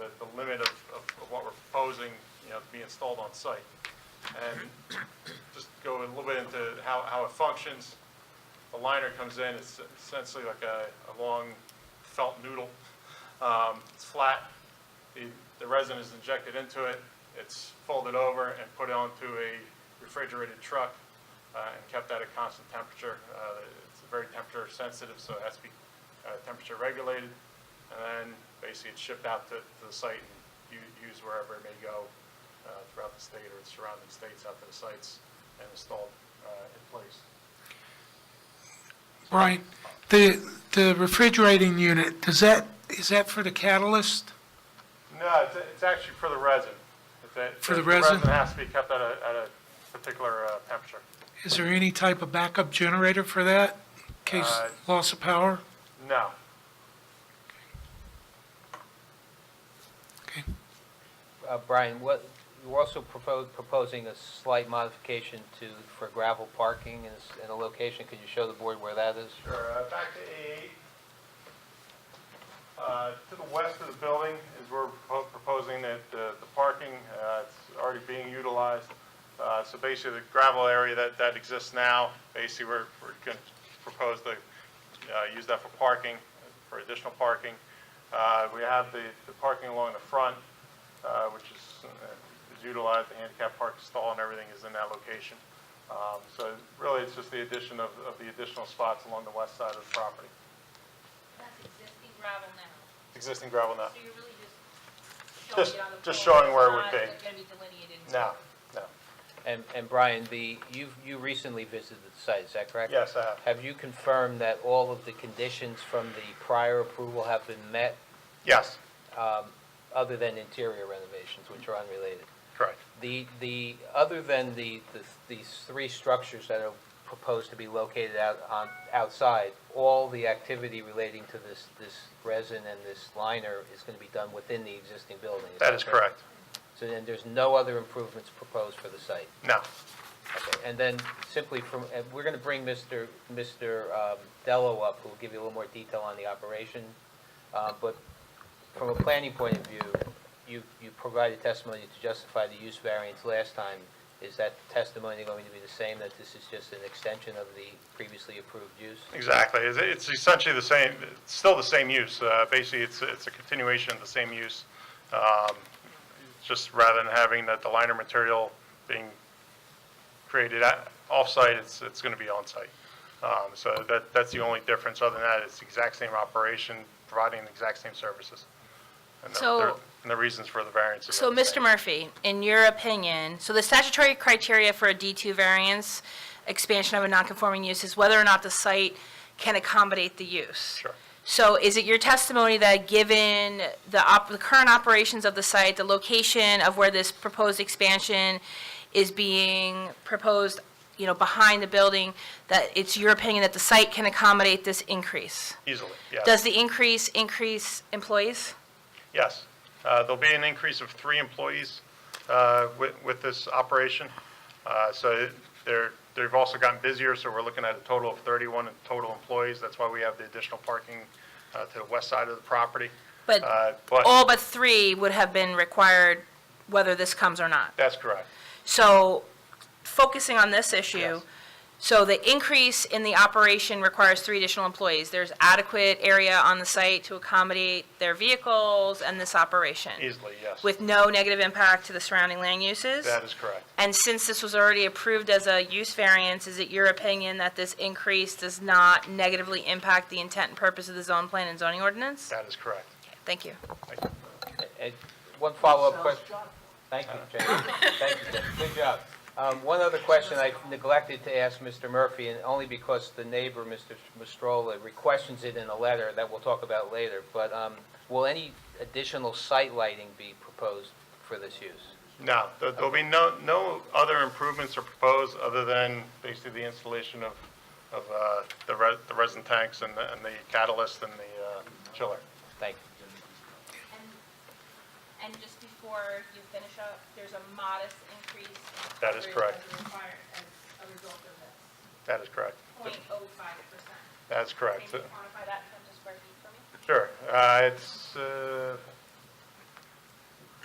installed on site. And just go a little bit into how, how it functions. A liner comes in, it's essentially like a, a long felt noodle. Um, It's flat, the, the resin is injected into it, it's folded over and put onto a refrigerated truck uh, and kept at a constant temperature. Uh, It's very temperature sensitive, so it has to be uh, temperature regulated. And then basically it's shipped out to, to the site and u- used wherever it may go uh, throughout the state or the surrounding states out to the sites and installed uh, in place. Right. The, the refrigerating unit, does that, is that for the catalyst? No, it's, it's actually for the resin. It's a- For the resin? The resin has to be kept at a, at a particular uh, temperature. Is there any type of backup generator for that, in case Uh, loss of power? No. Okay. Uh, Brian, what, you're also propo- proposing a slight modification to, for gravel parking in s- in a location. Could you show the board where that is? Sure, uh, back to A8. Uh, To the west of the building is where we're propo- proposing that uh, the parking, uh, it's already being utilized. Uh, So basically, the gravel area that, that exists now, basically, we're, we're going to propose to uh, use that for parking, for additional parking. Uh, We have the, the parking along the front, uh, which is uh, is utilized, the handicap park stall and everything is in that location. Um, So really, it's just the addition of, of the additional spots along the west side of the property. That's existing gravel now, Existing gravel now? so you're really just Just- showing just showing it on the floor. where it would be. It's not gonna be delineated. No, no. And, and Brian, the, you, you recently visited the site, is that correct? Yes, I have. Have you confirmed that all of the conditions from the prior approval have been met, Yes, um, other than interior renovations, which are unrelated? correct. The, the, other than the, the- these three structures that are proposed to be located out, on, outside, all the activity relating to this, this resin and this liner is going to be done within the existing building? That is correct. So then there's no other improvements proposed for the site? No, Okay, and then simply from, and we're going to bring Mr. Mr. um, Dello up, who will give you a little more detail on the operation. Uh, But from a planning point of view, you, you provided testimony to justify the use variance last time. Is that testimony going to be the same, that this is just an extension of the previously approved use? exactly. It's- It's essentially the same, it's still the same use. Uh, Basically, it's, it's a continuation of the same use. Um, Just rather than having that the liner material being created at- off-site, it's, it's going to be on-site. Um, So that, that's the only difference. Other than that, it's the exact same operation, providing the exact same services. And the- So- And the reasons for the variances. So, are the Mr. same. Murphy, in your opinion, so the statutory criteria for a D2 variance, expansion of a nonconforming use, is whether or not the site can accommodate the use. Sure. So is it your testimony that, given the op, the current operations of the site, the location of where this proposed expansion is being proposed, you know, behind the building, that it's your opinion that the site can accommodate this increase? Easily, yes. Does the increase increase employees? Yes. Uh, There'll be an increase of three employees uh, with with this operation. Uh, So they're, they've also gotten busier, so we're looking at a total of 31 total employees. That's why we have the additional parking uh, to the west side of the property. But Uh, But all but three would have been required whether this comes or not. that's correct. So focusing on this issue, Yes. so the increase in the operation requires three additional employees. There's adequate area on the site to accommodate their vehicles and this operation Easily, yes. with no negative impact to the surrounding land uses. That is correct. And since this was already approved as a use variance, is it your opinion that this increase does not negatively impact the intent and purpose of the zone plan and zoning ordinance? That is correct. Thank you. Thank you. Uh, One follow-up question. Thank you, James. Thank you, James. Good job. Um, One other question I neglected to ask Mr. Murphy, and only because the neighbor, Mr. Mastrola, requests it in a letter that we'll talk about later, but um, will any additional site lighting be proposed for this use? No, there- there'll be no, no other improvements are proposed other than basically the installation of, of uh, the re- the resin tanks and the and the catalyst and the uh, chiller. Thank you. And- And just before you finish up, there's a modest increase. in That is coverage correct. as required As a result of That is correct. this, 0.05 percent. That's correct. Can you quantify that in terms of square feet for me? Sure. Uh, It's, uh,